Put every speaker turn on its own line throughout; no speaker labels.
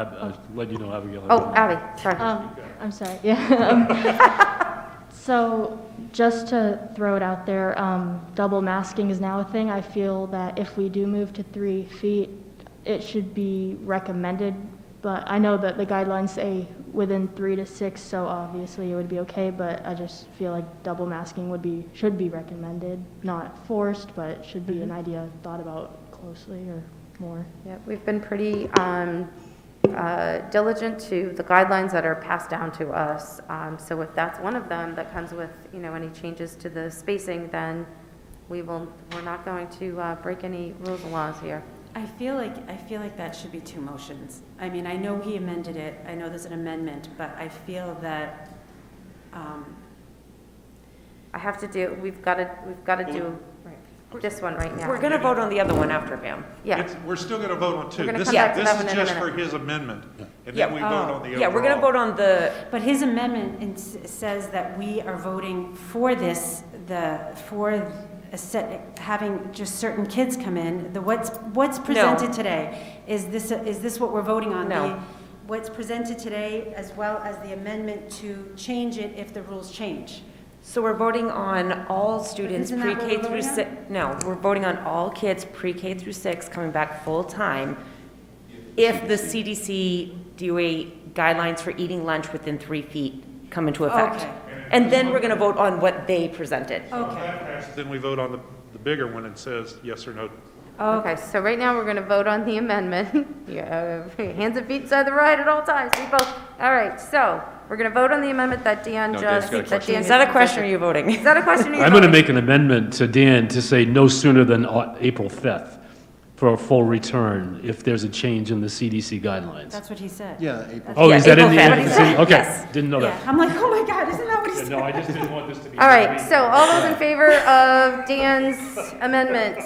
I- I'll let you know, Abigail.
Oh, Abby, sorry.
Um, I'm sorry, yeah. Um, So, just to throw it out there, um, double masking is now a thing. I feel that if we do move to three feet, it should be recommended, but I know that the guidelines say within three to six, so obviously it would be okay, but I just feel like double masking would be, should be recommended, not forced, but it should be an idea thought about closely or more.
Yeah, We've been pretty um, uh, diligent to the guidelines that are passed down to us. Um, So if that's one of them that comes with, you know, any changes to the spacing, then we will, we're not going to uh, break any rules and laws here.
I feel like, I feel like that should be two motions. I mean, I know he amended it, I know there's an amendment, but I feel that, um,
I have to do, we've got to, we've got to do this one right now.
We're going to vote on the other one after, ma'am.
Yeah,
It's- We're still going to vote on 2
We're gonna
This
come
is
back to
This
that one
is
in a
just for
minute. Oh.
his amendment, and
Yeah.
then we vote on the overall.
Yeah, we're going to vote on the,
but his amendment in- says that we are voting for this, the, for a set, having just certain kids come in. The what's, what's presented today, is this, is this what we're voting on?
No.
The- What's presented today, as well as the amendment to change it if the rules change.
so we're voting on all students
Isn't that what
pre-K
we're
through
voting on?
six. No, we're voting on all kids pre-K through six coming back full-time if the CDC DOA guidelines for eating lunch within three feet come into effect.
Okay.
And then we're going to vote on what they presented.
Okay,
Then we vote on the, the bigger one and says yes or no.
Oh.
okay, so right now, we're going to vote on the amendment. Yeah, uh, Hands and feet inside the ride at all times, we both, all right, so, we're going to vote on the amendment that Dan
No, Dan's
just.
got a
that
question.
Dan
Is that a
just
question or are
presented.
you
Is
voting?
that a question? or you
I'm going to
voting?
make an amendment to Dan to say no sooner than Au- April 5th for a full return if there's a change in the CDC guidelines.
that's what he said.
Yeah, April.
Oh,
Yeah,
is that in
April
the,
5th.
in the city?
Yes.
okay, didn't know
Yeah,
that.
I'm like, oh my God, isn't that what he said?
Yeah, No, I just didn't want this to be.
All right, so all those in favor of Dan's amendment,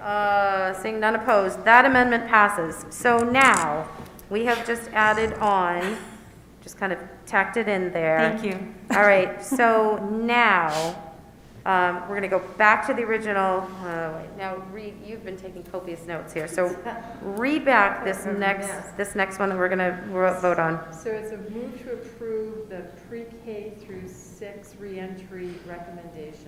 uh, seeing none opposed, that amendment passes. So now, we have just added on, just kind of tacked it in there.
Thank you.
All right, so now, um, we're going to go back to the original, uh, wait, now, read, you've been taking copious notes here, so read back this next, this next one that we're going to vote on.
So it's a move to approve the pre-K through six reentry recommendations.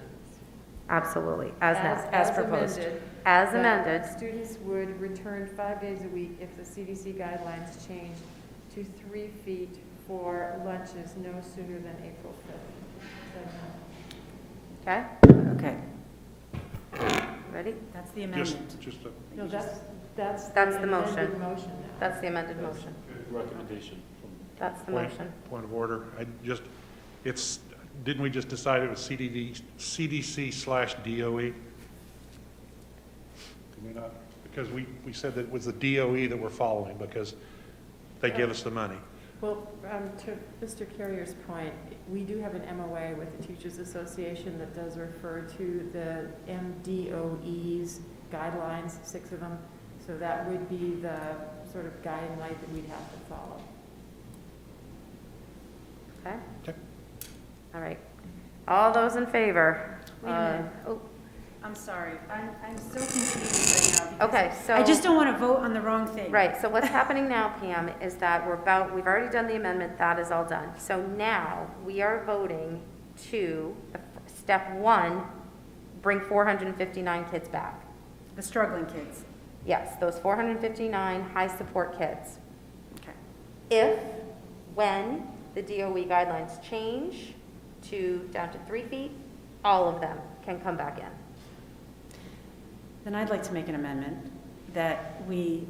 Absolutely, as now,
as proposed.
amended,
as
that
amended.
Students would return five days a week if the CDC guidelines change to three feet for lunches no sooner than April 5th. So,
Okay,
Okay.
ready?
That's the
Just,
amendment.
just a
No, that's, that's.
That's the motion.
amended Motion now.
That's the amended motion.
Recommendation.
That's the
point,
motion.
point of order. I just, it's, didn't we just decide it was CDD, CDC slash DOE? Did we not? Because we, we said that it was the DOE that we're following because they give us the money.
Well, um, to Mr. Carrier's point, we do have an MOA with the Teachers Association that does refer to the MDOE's guidelines, six of them. So that would be the sort of guiding light that we'd have to follow.
Okay?
Okay.
All right. All those in favor?
Wait a minute.
Uh, oh,
I'm sorry, I'm, I'm so confused right now. because
Okay, so.
I just don't want to vote on the wrong thing.
Right, so what's happening now, Pam, is that we're about, we've already done the amendment, that is all done. So now, we are voting to, the f- step one, bring 459 kids back.
The struggling kids.
Yes, those 459 high-support kids.
Okay.
if, when the DOE guidelines change to down to three feet, all of them can come back in.
Then I'd like to make an amendment that we,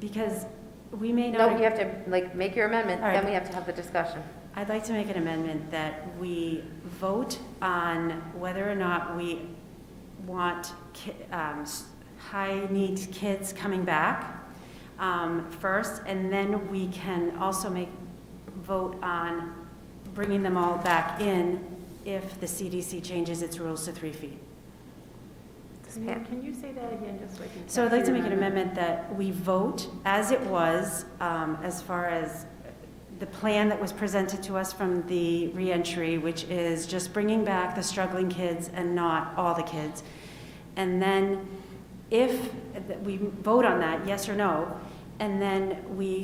because we may not.
No, you have to, like, make your amendment, then we have to have the discussion.
I'd like to make an amendment that we vote on whether or not we want ki- um, s- high-needs kids coming back um, first, and then we can also make, vote on bringing them all back in if the CDC changes its rules to three feet.
Pam?
Can you say that again, just so I can?
So I'd like to
capture
make
your
an amendment that we vote as it was, um, as far as the plan that was presented to us from the reentry, which is just bringing back the struggling kids and not all the kids. And then if, that we vote on that, yes or no, and then we